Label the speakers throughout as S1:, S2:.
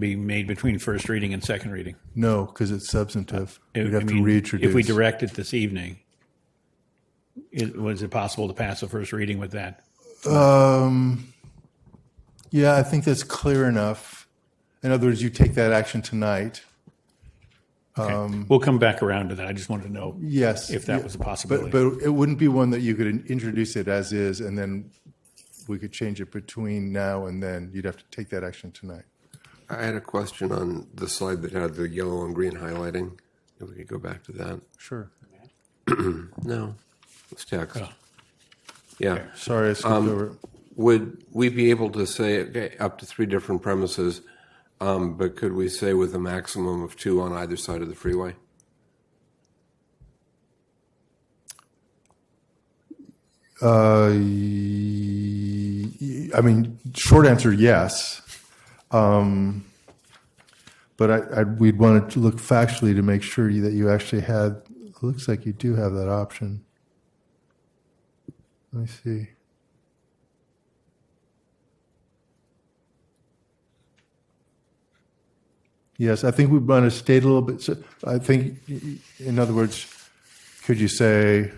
S1: be made between first reading and second reading.
S2: No, because it's substantive.
S1: I-
S2: We'd
S1: Uh, I
S2: have to
S1: mean,
S2: reintroduce.
S1: If we direct it this evening, is, was it possible to pass the first reading with that?
S2: Um, yeah, I think that's clear enough. In other words, you take that action tonight.
S1: Okay. We'll come back around to that. I just wanted to know
S2: Yes.
S1: if that
S2: Um, yeah.
S1: was a
S2: But,
S1: possibility.
S2: but it wouldn't be one that you could in- introduce it as is, and then we could change it between now and then. You'd have to take that action tonight.
S3: I had a question on the slide that had the yellow and green highlighting. If we could go back to that.
S2: Sure.
S3: No, it's text. Yeah.
S2: Sorry, I skipped over it.
S3: Would we be able to say, okay, up to three different premises, um, but could we say with a maximum of two on either side of the freeway?
S2: Uh, y- y- I mean, short answer, yes. Um, But I, I, we'd want to look factually to make sure that you actually had, it looks like you do have that option. Let me see. Yes, I think we want to state a little bit, so I think, y- y- in other words, could you say,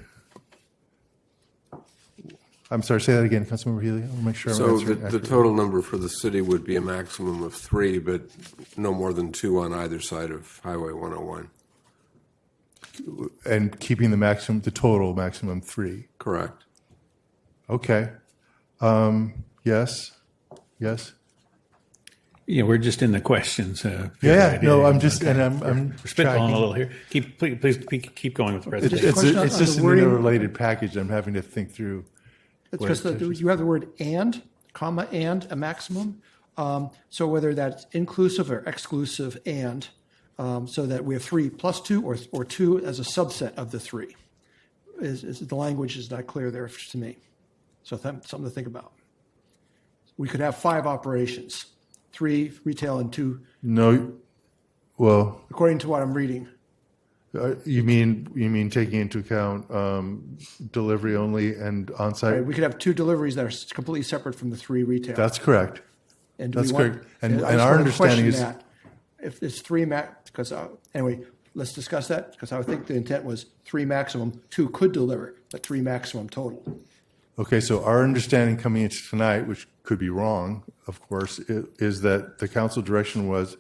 S2: I'm sorry, say that again, Councilmember Healy, I'll make sure I'm
S3: So the,
S2: answering
S3: the
S2: accurately.
S3: total number for the city would be a maximum of three, but no more than two on either side of Highway 101.
S2: And keeping the maximum, the total maximum three.
S3: Correct.
S2: Okay. Um, yes. Yes.
S1: Yeah, we're just in the questions. uh,
S2: Yeah.
S1: figure
S2: No,
S1: out-
S2: I'm just, and I'm, I'm
S1: We're spitballing
S2: tracking.
S1: a little here. Keep, please, please keep- keep going with the
S2: It's,
S1: presentation.
S2: it's,
S4: Question
S2: a,
S4: on-
S2: it's
S4: on the
S2: just an
S4: wording.
S2: interrelated package. I'm having to think through.
S4: It's just that you have the word and, comma, and a maximum. Um, so whether that's inclusive or exclusive and, um, so that we have three plus two or, or two as a subset of the three. Is, is the language is not clear there to me. So that's something to think about. We could have five operations, three retail and two,
S2: No. Well,
S4: according to what I'm reading.
S2: uh, you mean you mean taking into account um, delivery only and on-site?
S4: Right? We could have two deliveries that are completely separate from the three retail.
S2: That's correct.
S4: And do
S2: That's
S4: we want-
S2: correct. And-
S4: I
S2: and
S4: just
S2: our
S4: wanna question
S2: understanding is-
S4: that. If there's three max, because, uh, anyway, let's discuss that, because I would think the intent was three maximum, two could deliver, but three maximum total.
S2: Okay, so our understanding coming into tonight, which could be wrong, of course, i- is that the council direction was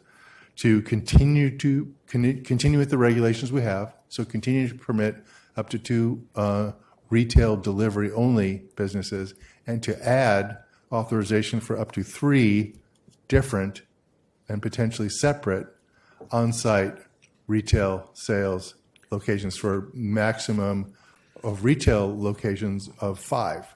S2: to continue to, con- continue with the regulations we have, so continue to permit up to two uh, retail delivery-only businesses, and to add authorization for up to three different and potentially separate on-site retail sales locations for maximum of retail locations of five.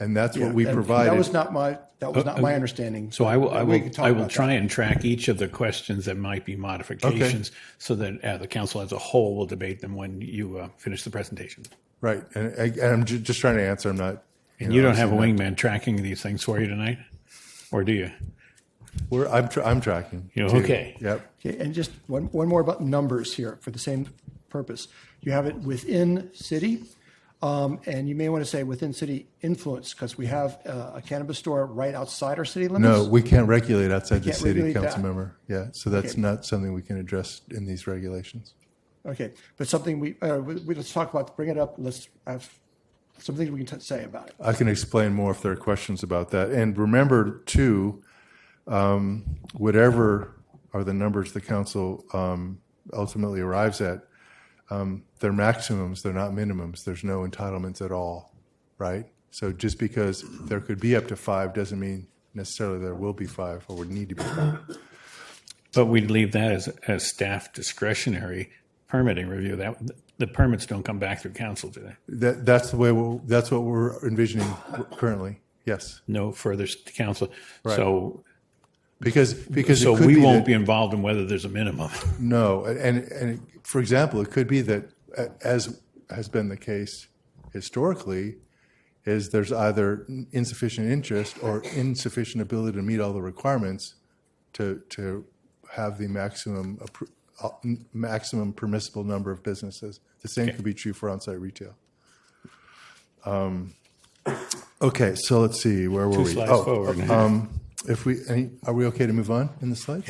S2: And that's what we
S4: And
S2: provided. Uh,
S4: That was not my, that was not my understanding.
S1: So I will, I
S4: We
S1: will,
S4: can talk
S1: I will
S4: about that.
S1: try and track each of the questions that might be modifications so that uh, the council as a whole will debate them when you uh, finish the presentation.
S2: Right, and, I- and I'm ju- just trying to answer, I'm not.
S1: And you don't have a wingman tracking these things for you tonight? Or do you?
S2: We're, I'm, tr- I'm tracking.
S1: You know,
S2: too.
S1: okay.
S2: Yep,
S4: Okay, and just one, one more about numbers here for the same purpose. You have it within city, um, and you may want to say within city influence, because we have uh, a cannabis store right outside our city limits.
S2: no, we can't regulate outside the
S4: can't
S2: city,
S4: regulate that.
S2: council member, yeah, so that's
S4: Okay.
S2: not something we can address in these regulations.
S4: Okay, but something we, uh, we, we- let's talk about, bring it up, let's have some things we can t- say about it.
S2: I can explain more if there are questions about that. And remember, too, um, whatever are the numbers the council um, ultimately arrives at, um, they're maximums, they're not minimums. There's no entitlements at all, right? So just because there could be up to five doesn't mean necessarily there will be five or would need to be five.
S1: But we'd leave that as, as staff discretionary permitting review. That, the permits don't come back through council, do they?
S2: That, that's the way, we'll, that's what we're envisioning currently, yes.
S1: No further s- council. So,
S2: Because, because
S1: so
S2: it could
S1: we
S2: be
S1: won't
S2: that-
S1: be involved in whether there's a minimum.
S2: No, and and for example, it could be that, a- as has been the case historically, is there's either insufficient interest or insufficient ability to meet all the requirements to to have the maximum appro- uh, m- maximum permissible number of businesses. The same could be true for on-site retail. Um, okay, so let's see where were we?
S1: Slides
S2: Oh,
S1: forward.
S2: um, if we any, are we okay to move on in the slides?